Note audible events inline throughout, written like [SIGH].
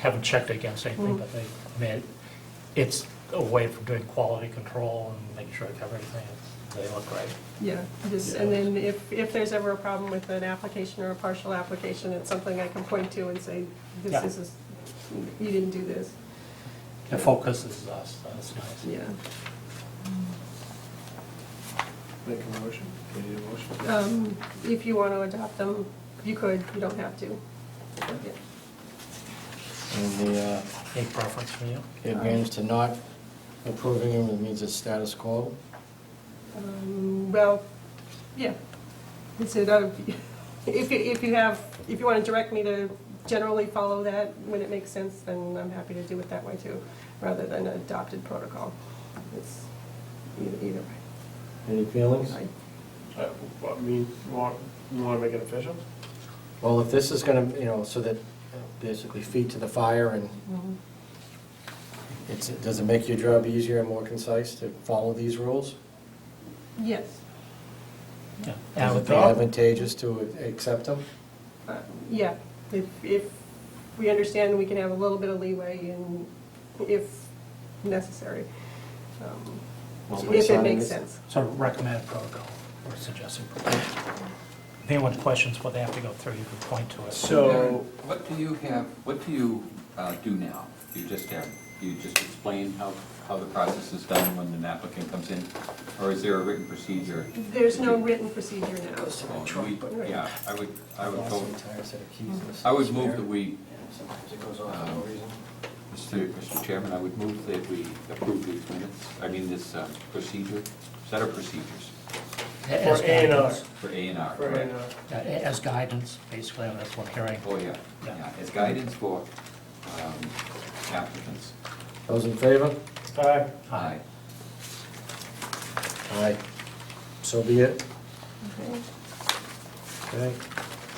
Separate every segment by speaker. Speaker 1: haven't checked against anything, but they, I mean, it's a way for doing quality control and making sure that everything, they look right.
Speaker 2: Yeah, just, and then if, if there's ever a problem with an application or a partial application, it's something I can point to and say,
Speaker 1: Yeah.
Speaker 2: this is, you didn't do this,
Speaker 1: It focuses us, that's nice.
Speaker 2: yeah.
Speaker 3: Make a motion, we need a motion.
Speaker 2: Um, If you want to adopt them, you could, you don't have to. Yeah.
Speaker 4: And the uh,
Speaker 1: Any preference from you?
Speaker 4: the advantage to not approving them, it means it's status quo.
Speaker 2: Um, Well, yeah, it's, it, uh, [LAUGHS] if, you- if you have, if you want to direct me to generally follow that when it makes sense, then I'm happy to do it that way too, rather than adopted protocol. It's either, either way.
Speaker 4: Any feelings?
Speaker 2: I-
Speaker 3: Uh, I mean, you want, you want to make it official?
Speaker 4: Well, if this is gonna, you know, so that uh, basically feed to the fire and it's, does it make your job easier and more concise to follow these rules?
Speaker 2: Yes,
Speaker 1: Yeah.
Speaker 4: Is it advantageous to accept them?
Speaker 2: Uh, yeah, if, if we understand, we can have a little bit of leeway in, if necessary. Um,
Speaker 4: Well, we
Speaker 2: If it
Speaker 4: sign
Speaker 2: makes
Speaker 4: this-
Speaker 2: sense.
Speaker 1: So recommended protocol, or suggested protocol. If anyone questions what they have to go through, you can point to it.
Speaker 3: So-
Speaker 5: What do you have, what do you uh, do now? You just have, you just explain how, how the process is done when an applicant comes in? Or is there a written procedure?
Speaker 2: There's no written procedure now.
Speaker 4: Oh,
Speaker 5: We- Yeah, I would, I would
Speaker 4: Lost
Speaker 5: go,
Speaker 4: an entire set of keys in this
Speaker 5: I would
Speaker 4: spare.
Speaker 5: move that we, Uh,
Speaker 4: Sometimes it goes off for no reason.
Speaker 5: Mr. Mr. Chairman, I would move that we approve these minutes, I mean, this uh, procedure, set of procedures
Speaker 1: As
Speaker 3: For A and R.
Speaker 1: guidance.
Speaker 5: for A and R,
Speaker 3: Right,
Speaker 5: correct?
Speaker 3: uh,
Speaker 1: Yeah, a- As guidance, basically, on this one hearing.
Speaker 5: Oh, yeah, yeah, as guidance for um, applicants.
Speaker 4: Those in favor?
Speaker 3: Aye.
Speaker 5: Aye.
Speaker 4: Aye. So be it.
Speaker 2: Okay.
Speaker 4: Okay.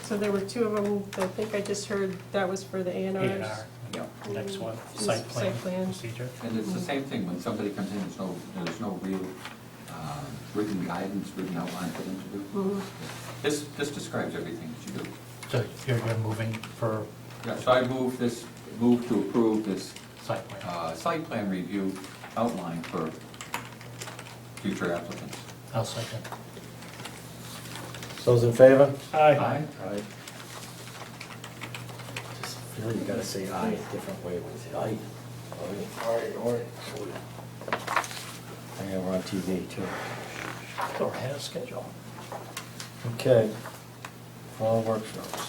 Speaker 2: So there were two of them, I think I just heard that was for the A and
Speaker 1: A
Speaker 2: Rs.
Speaker 1: and R,
Speaker 5: Yep.
Speaker 1: next one,
Speaker 2: Just
Speaker 1: site plan
Speaker 2: site plan.
Speaker 1: procedure.
Speaker 5: And it's the same thing, when somebody comes in, there's no, there's no real um, written guidance, written outline for them to do.
Speaker 2: Mm-hmm.
Speaker 5: This, this describes everything that you do.
Speaker 1: So you're, you're moving for
Speaker 5: Yeah, so I move this, move to approve this
Speaker 1: site plan.
Speaker 5: uh, site plan review outline for future applicants.
Speaker 1: I'll second.
Speaker 4: Those in favor?
Speaker 3: Aye.
Speaker 4: Aye. Just feel you gotta say aye a different way when you say aye. Aye, aye. I think we're on TV too.
Speaker 1: Go ahead, schedule.
Speaker 4: Okay. Fall workshops.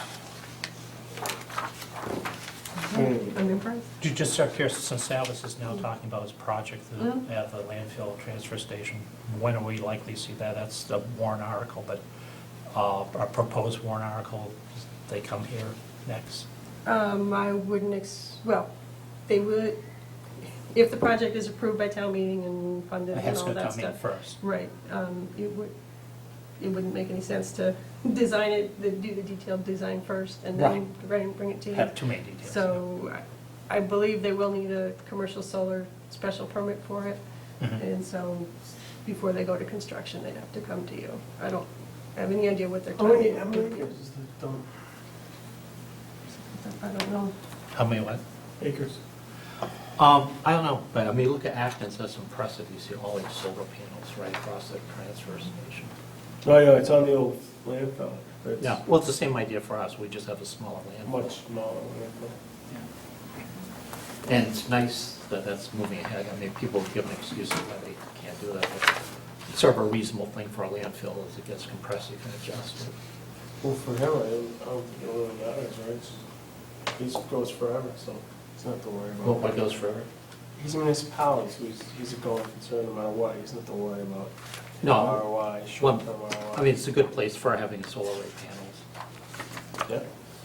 Speaker 2: I'm impressed.
Speaker 1: Ju- Just out of curiosity, since Salvis is now talking about his project that-
Speaker 2: Mhm.
Speaker 1: at the landfill transfer station, when are we likely to see that? That's the warrant article, but uh, our proposed warrant article, they come here next.
Speaker 2: Um, I wouldn't ex, well, they would, if the project is approved by town meeting and funded
Speaker 1: It
Speaker 2: and
Speaker 1: has
Speaker 2: all
Speaker 1: to
Speaker 2: that
Speaker 1: come in
Speaker 2: stuff.
Speaker 1: first.
Speaker 2: Right, um, it would, it wouldn't make any sense to design it, the- do the detailed design first and then bring bring it to you.
Speaker 1: Have too many details.
Speaker 2: So I I believe they will need a commercial solar special permit for it.
Speaker 1: Mhm.
Speaker 2: And so before they go to construction, they'd have to come to you. I don't have any idea what they're
Speaker 3: How
Speaker 2: talking
Speaker 3: many, how many
Speaker 2: about.
Speaker 3: acres is the dump?
Speaker 2: I don't know.
Speaker 1: How many what?
Speaker 3: Acres.
Speaker 1: Um, I don't know, but I mean, look at Athens, that's impressive. You see all these solar panels right across the transfer station.
Speaker 3: No, no, it's on the old landfill. It's
Speaker 1: Yeah, well, it's the same idea for us, we just have a smaller landfill.
Speaker 3: Much smaller landfill.
Speaker 1: And it's nice that that's moving ahead. I mean, people give an excuse of why they can't do that. but It's sort of a reasonable thing for a landfill as it gets compressed, you can adjust it.
Speaker 3: Well, for him, I don't think it really matters, right? It's- He's, goes forever, so it's not to worry about.
Speaker 1: Well, what goes forever?
Speaker 3: He's a municipality, so he's, he's a going concern no matter what. He's not to worry about
Speaker 1: No,
Speaker 3: ROI,
Speaker 1: well,
Speaker 3: short-term ROI.
Speaker 1: I mean, it's a good place for having solar array panels.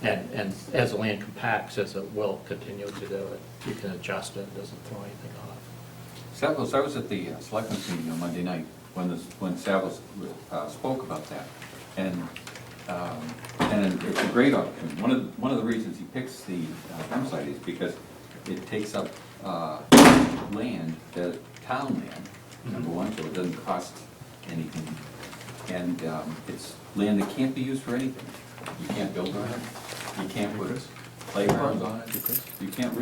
Speaker 3: Yeah.
Speaker 1: And, and as the land compacts, as it will continue to do it, you can adjust it, it doesn't throw anything off.
Speaker 5: Savos, I was at the uh, selectmen's meeting on Monday night when this, when Savos uh, spoke about that. And, um, and it's a great option. One of, one of the reasons he picks the uh, dump site is because it takes up uh, land, the town land, number one, so it doesn't cost anything. And um, it's land that can't be used for anything. You can't build on it, you can't put playgrounds on it, you can't